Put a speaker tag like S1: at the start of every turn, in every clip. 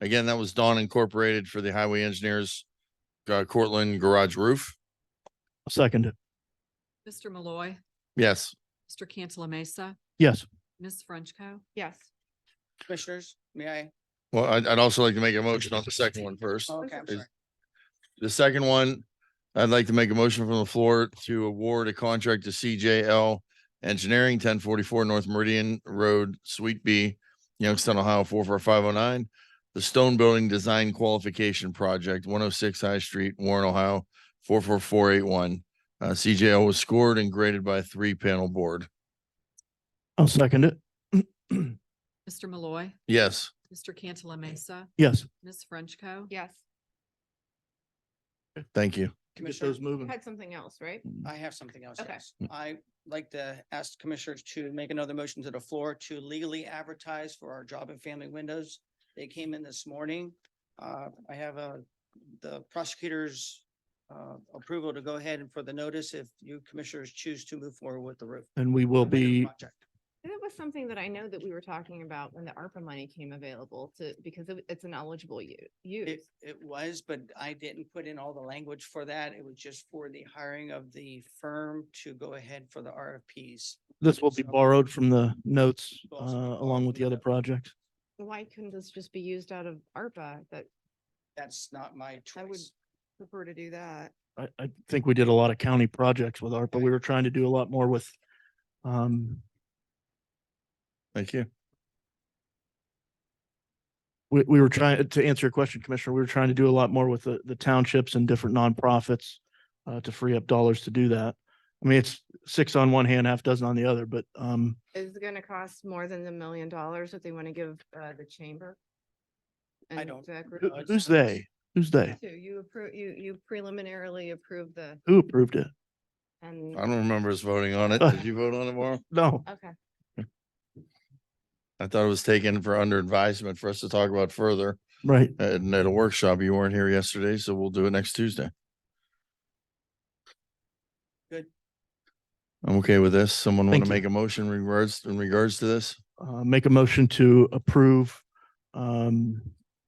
S1: Again, that was Dawn Incorporated for the Highway Engineers uh, Cortland Garage Roof.
S2: Second it.
S3: Mr. Malloy,
S1: Yes,
S3: Mr. Cantala Mesa,
S2: Yes.
S3: Ms. Frenchco.
S4: Yes.
S5: Commissioners, may I?
S1: well, I'd, I'd also like to make a motion on the second one first.
S5: Oh, Okay, I'm
S1: Is-
S5: sorry.
S1: The second one, I'd like to make a motion from the floor to award a contract to CJL Engineering, ten forty-four North Meridian Road, Suite B, Youngstown, Ohio, four four five oh nine. The Stone Building Design Qualification Project, one oh six High Street, Warren, Ohio, four four four eight one. Uh, CJL was scored and graded by a three-panel board.
S2: I'll second it.
S3: Mr. Malloy,
S1: Yes,
S3: Mr. Cantala Mesa,
S2: Yes.
S3: Ms. Frenchco.
S4: Yes.
S1: thank you.
S2: Get
S5: Commissioner,
S2: those moving.
S4: Had something else, right?
S5: I have something else.
S4: Okay.
S2: Mm.
S5: yes. I like to ask commissioners to make another motion to the floor to legally advertise for our job and family windows. They came in this morning. Uh, I have uh the prosecutor's uh, approval to go ahead and for the notice if you commissioners choose to move forward with the roof.
S2: And we will
S5: with the
S2: be,
S5: project.
S4: That was something that I know that we were talking about when the ARPA money came available to, because it- it's an eligible u-
S5: It,
S4: use.
S5: it was, but I didn't put in all the language for that. It was just for the hiring of the firm to go ahead for the RFPs.
S2: this will be
S5: So-
S2: borrowed from the notes uh,
S5: Also be
S2: along with the other projects.
S4: Why couldn't this just be used out of ARPA that
S5: That's not my
S4: I would
S5: choice.
S4: prefer to do that?
S2: I, I think we did a lot of county projects with ARPA. We were trying to do a lot more with um,
S1: Thank you.
S2: we, we were trying to answer your question, Commissioner. We were trying to do a lot more with the, the townships and different nonprofits uh, to free up dollars to do that. I mean, it's six on one hand, half dozen on the other, but um,
S4: Is it gonna cost more than the million dollars that they want to give uh the chamber? and
S5: don't-
S4: that group?
S2: who-
S5: Uh,
S2: who's they? Who's they?
S4: Two, You approve, you you preliminarily approve the
S2: Who approved it?
S4: and,
S1: I don't remember us voting on it. Did you vote on it, Maura?
S2: No,
S4: okay.
S1: I thought it was taken for under advisement for us to talk about further.
S2: right.
S1: And at a workshop, you weren't here yesterday, so we'll do it next Tuesday.
S5: Good.
S1: I'm okay with this. Someone want
S2: Thank
S1: to
S2: you.
S1: make a motion in regards, in regards to this?
S2: uh, make a motion to approve um,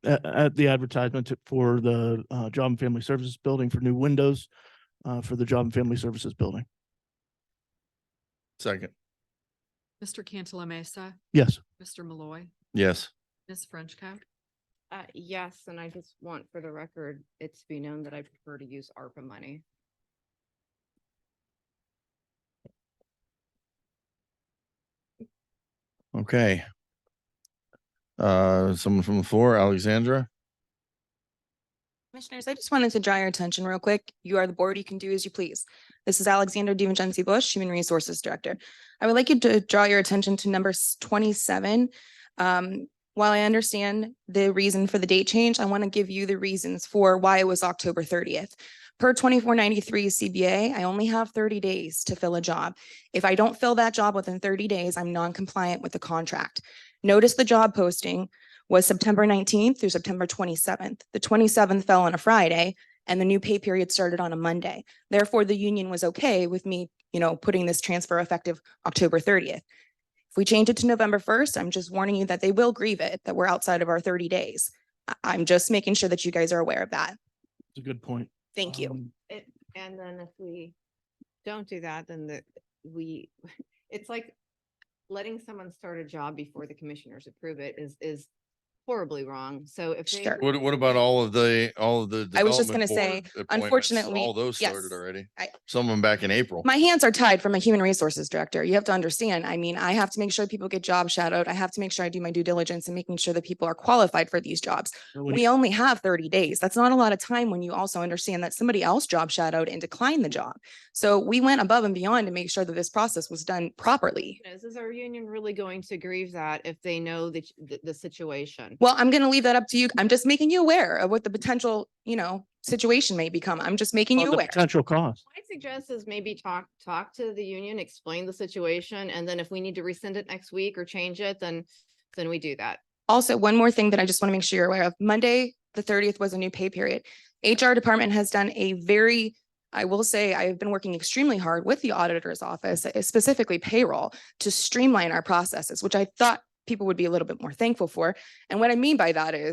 S2: at, at the advertisement to- for the uh, Job and Family Services Building for new windows uh, for the Job and Family Services Building.
S1: Second,
S3: Mr. Cantala Mesa,
S2: Yes.
S3: Mr. Malloy,
S1: yes.
S3: Ms. Frenchco.
S4: Uh, yes, and I just want for the record, it to be known that I prefer to use ARPA money.
S1: Okay. Uh, someone from the floor, Alexandra?
S6: Commissioners, I just wanted to draw your attention real quick. You are the board. You can do as you please. This is Alexander DiVincenzi Bush, Human Resources Director. I would like you to draw your attention to number s- twenty-seven. Um, while I understand the reason for the date change, I want to give you the reasons for why it was October thirtieth. Per twenty-four ninety-three CBA, I only have thirty days to fill a job. If I don't fill that job within thirty days, I'm non-compliant with the contract. Notice the job posting was September nineteenth through September twenty-seventh. The twenty-seventh fell on a Friday and the new pay period started on a Monday. Therefore, the union was okay with me, you know, putting this transfer effective October thirtieth. If we change it to November first, I'm just warning you that they will grieve it, that we're outside of our thirty days. I- I'm just making sure that you guys are aware of that.
S2: It's a good point.
S6: Thank you.
S2: Um,
S4: It, and then if we don't do that, then the, we, it's like letting someone start a job before the commissioners approve it is, is horribly wrong. So if they.
S6: Sure.
S1: What, what about all of the, all of the?
S6: I was just gonna
S1: development
S6: say,
S1: board appointments?
S6: unfortunately,
S1: All those
S6: yes.
S1: started already.
S6: I-
S1: Some of them back in April.
S6: My hands are tied from a human resources director. You have to understand. I mean, I have to make sure people get job shadowed. I have to make sure I do my due diligence and making sure that people are qualified for these jobs.
S2: so when
S6: We
S2: you-
S6: only have thirty days. That's not a lot of time when you also understand that somebody else job shadowed and declined the job. So we went above and beyond to make sure that this process was done properly.
S4: Is, is our union really going to grieve that if they know the, the, the situation?
S6: Well, I'm gonna leave that up to you. I'm just making you aware of what the potential, you know, situation may become. I'm just making
S2: Well,
S6: you
S2: the
S6: aware.
S2: Potential cost.
S4: I suggest is maybe talk, talk to the union, explain the situation, and then if we need to rescind it next week or change it, then, then we do that.
S6: Also, one more thing that I just want to make sure you're aware of. Monday, the thirtieth was a new pay period. HR department has done a very, I will say, I have been working extremely hard with the auditor's office, uh, specifically payroll, to streamline our processes, which I thought people would be a little bit more thankful for. And what I mean by that is